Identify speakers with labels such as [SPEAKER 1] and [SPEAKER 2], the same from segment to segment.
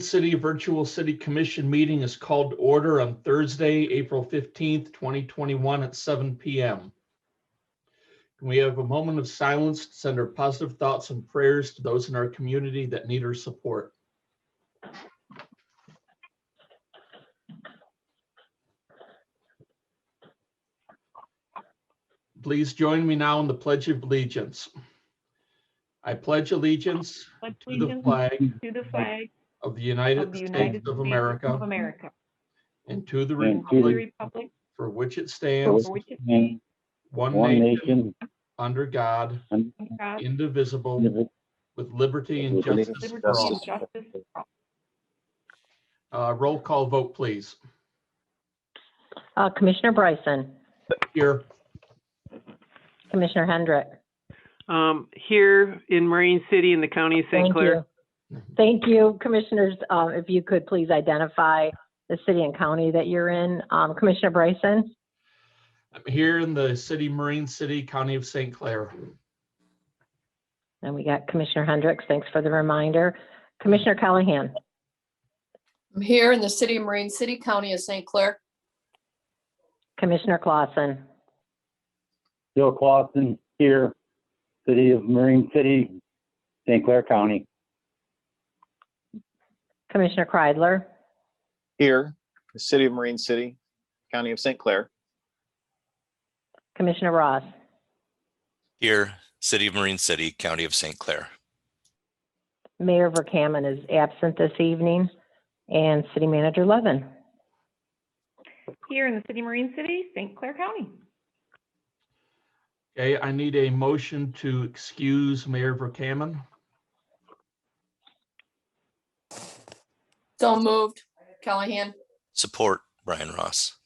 [SPEAKER 1] City Virtual City Commission meeting is called to order on Thursday, April 15th, 2021 at 7 PM. Can we have a moment of silence to send our positive thoughts and prayers to those in our community that need our support? Please join me now in the Pledge of Allegiance. I pledge allegiance to the
[SPEAKER 2] allegiance
[SPEAKER 1] flag
[SPEAKER 2] to the flag
[SPEAKER 1] of the
[SPEAKER 2] of
[SPEAKER 1] United
[SPEAKER 2] the United
[SPEAKER 1] States
[SPEAKER 2] States
[SPEAKER 1] of America
[SPEAKER 2] of America,
[SPEAKER 1] and to the
[SPEAKER 3] And
[SPEAKER 2] to the
[SPEAKER 1] republic
[SPEAKER 2] republic
[SPEAKER 1] for which it
[SPEAKER 2] for
[SPEAKER 1] stands,
[SPEAKER 2] which it
[SPEAKER 3] And
[SPEAKER 2] stands,
[SPEAKER 1] one
[SPEAKER 3] one
[SPEAKER 1] nation,
[SPEAKER 3] nation,
[SPEAKER 1] under God,
[SPEAKER 3] under
[SPEAKER 2] God,
[SPEAKER 1] indivisible,
[SPEAKER 3] indivisible,
[SPEAKER 1] with liberty and
[SPEAKER 3] with
[SPEAKER 1] justice
[SPEAKER 2] liberty
[SPEAKER 1] for
[SPEAKER 2] and
[SPEAKER 1] all.
[SPEAKER 2] justice for all.
[SPEAKER 1] Uh, Roll call vote, please.
[SPEAKER 4] Uh, Commissioner Bryson,
[SPEAKER 1] Here,
[SPEAKER 4] Commissioner Hendrick.
[SPEAKER 5] Um, here in Marine City in the county of St.
[SPEAKER 4] Thank
[SPEAKER 5] Clair.
[SPEAKER 4] you. Thank you, Commissioners. Um, if you could please identify the city and county that you're in. Um, Commissioner Bryson,
[SPEAKER 1] I'm here in the city, Marine City, County of St. Clair.
[SPEAKER 4] and we got Commissioner Hendricks. Thanks for the reminder. Commissioner Callahan,
[SPEAKER 6] I'm here in the city of Marine City, County of St. Clair.
[SPEAKER 4] Commissioner Clausen,
[SPEAKER 3] Bill Clausen here, city of Marine City, St. Clair County.
[SPEAKER 4] Commissioner Kreidler,
[SPEAKER 7] here, the city of Marine City, county of St. Clair,
[SPEAKER 4] Commissioner Ross,
[SPEAKER 8] Here, City of Marine City, County of St. Clair.
[SPEAKER 4] Mayor Verkaman is absent this evening, and City Manager Levin.
[SPEAKER 2] Here in the city, Marine City, St. Clair County.
[SPEAKER 1] Okay, I need a motion to excuse Mayor Verkaman.
[SPEAKER 6] So moved. Callahan?
[SPEAKER 8] Support Brian Ross.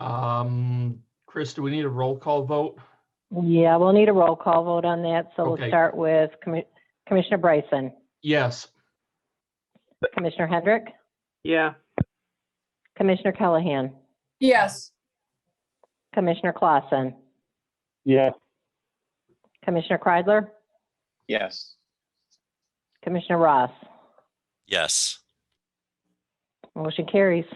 [SPEAKER 1] Um, Chris, do we need a roll call vote?
[SPEAKER 4] Yeah, we'll need a roll call vote on that, so
[SPEAKER 1] Okay.
[SPEAKER 4] we'll start with Commi- Commissioner Bryson,
[SPEAKER 1] Yes.
[SPEAKER 4] Commissioner Hendrick,
[SPEAKER 5] Yeah,
[SPEAKER 4] Commissioner Callahan.
[SPEAKER 6] Yes.
[SPEAKER 4] Commissioner Clausen,
[SPEAKER 3] Yes,
[SPEAKER 4] Commissioner Kreidler,
[SPEAKER 7] yes.
[SPEAKER 4] Commissioner Ross.
[SPEAKER 8] Yes,
[SPEAKER 4] Motion carries.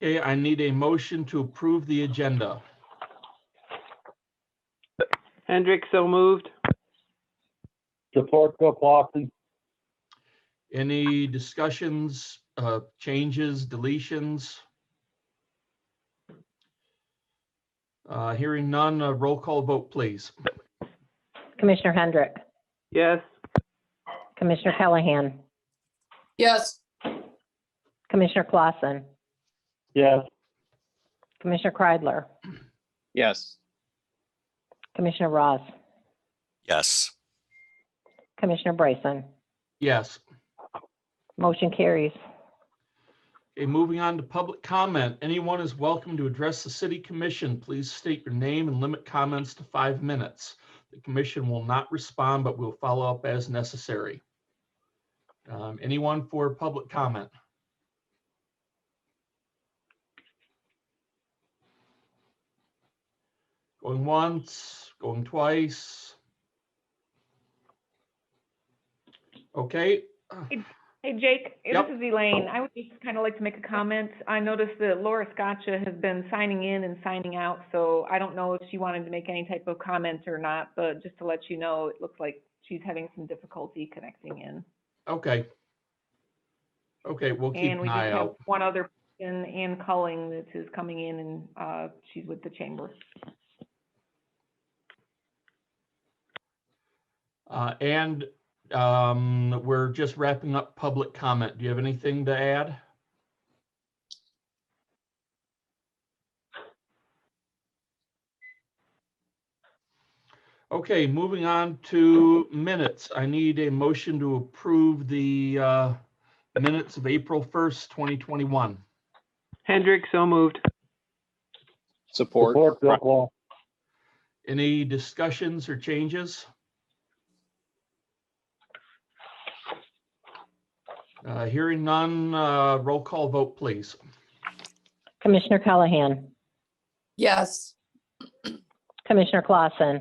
[SPEAKER 1] Okay, I need a motion to approve the agenda.
[SPEAKER 5] Hendrick, so moved.
[SPEAKER 3] support Bill Clausen.
[SPEAKER 1] Any discussions, uh, changes, deletions? Uh, Hearing none, uh, roll call vote, please.
[SPEAKER 4] Commissioner Hendrick,
[SPEAKER 5] Yes,
[SPEAKER 4] Commissioner Callahan,
[SPEAKER 6] Yes.
[SPEAKER 4] Commissioner Clausen,
[SPEAKER 3] Yes,
[SPEAKER 4] Commissioner Kreidler,
[SPEAKER 7] Yes,
[SPEAKER 4] Commissioner Ross,
[SPEAKER 8] yes,
[SPEAKER 4] Commissioner Bryson.
[SPEAKER 1] Yes.
[SPEAKER 4] Motion carries.
[SPEAKER 1] Okay, moving on to public comment. Anyone is welcome to address the city commission. Please state your name and limit comments to five minutes. The commission will not respond, but will follow up as necessary. Um, Anyone for public comment? Going once, going twice. Okay,
[SPEAKER 2] Hey Jake, this
[SPEAKER 1] Yep.
[SPEAKER 2] is Elaine. I would just kind of like to make a comment. I noticed that Laura Scotcha has been signing in and signing out, so I don't know if she wanted to make any type of comment or not, but just to let you know, it looks like she's having some difficulty connecting in.
[SPEAKER 1] Okay. Okay, we'll keep
[SPEAKER 2] And
[SPEAKER 1] an
[SPEAKER 2] we just
[SPEAKER 1] eye
[SPEAKER 2] have
[SPEAKER 1] out.
[SPEAKER 2] one other person, Ann Culling, that is coming in and uh, she's with the chamber.
[SPEAKER 1] Uh, and, um, we're just wrapping up public comment. Do you have anything to add? Okay, moving on to minutes. I need a motion to approve the, uh, minutes of April first, twenty twenty-one.
[SPEAKER 5] Hendrick, so moved.
[SPEAKER 7] support.
[SPEAKER 3] support Bill Clausen.
[SPEAKER 1] Any discussions or changes? Uh, Hearing none, uh, roll call vote, please.
[SPEAKER 4] Commissioner Callahan,
[SPEAKER 6] Yes.
[SPEAKER 4] Commissioner Clausen,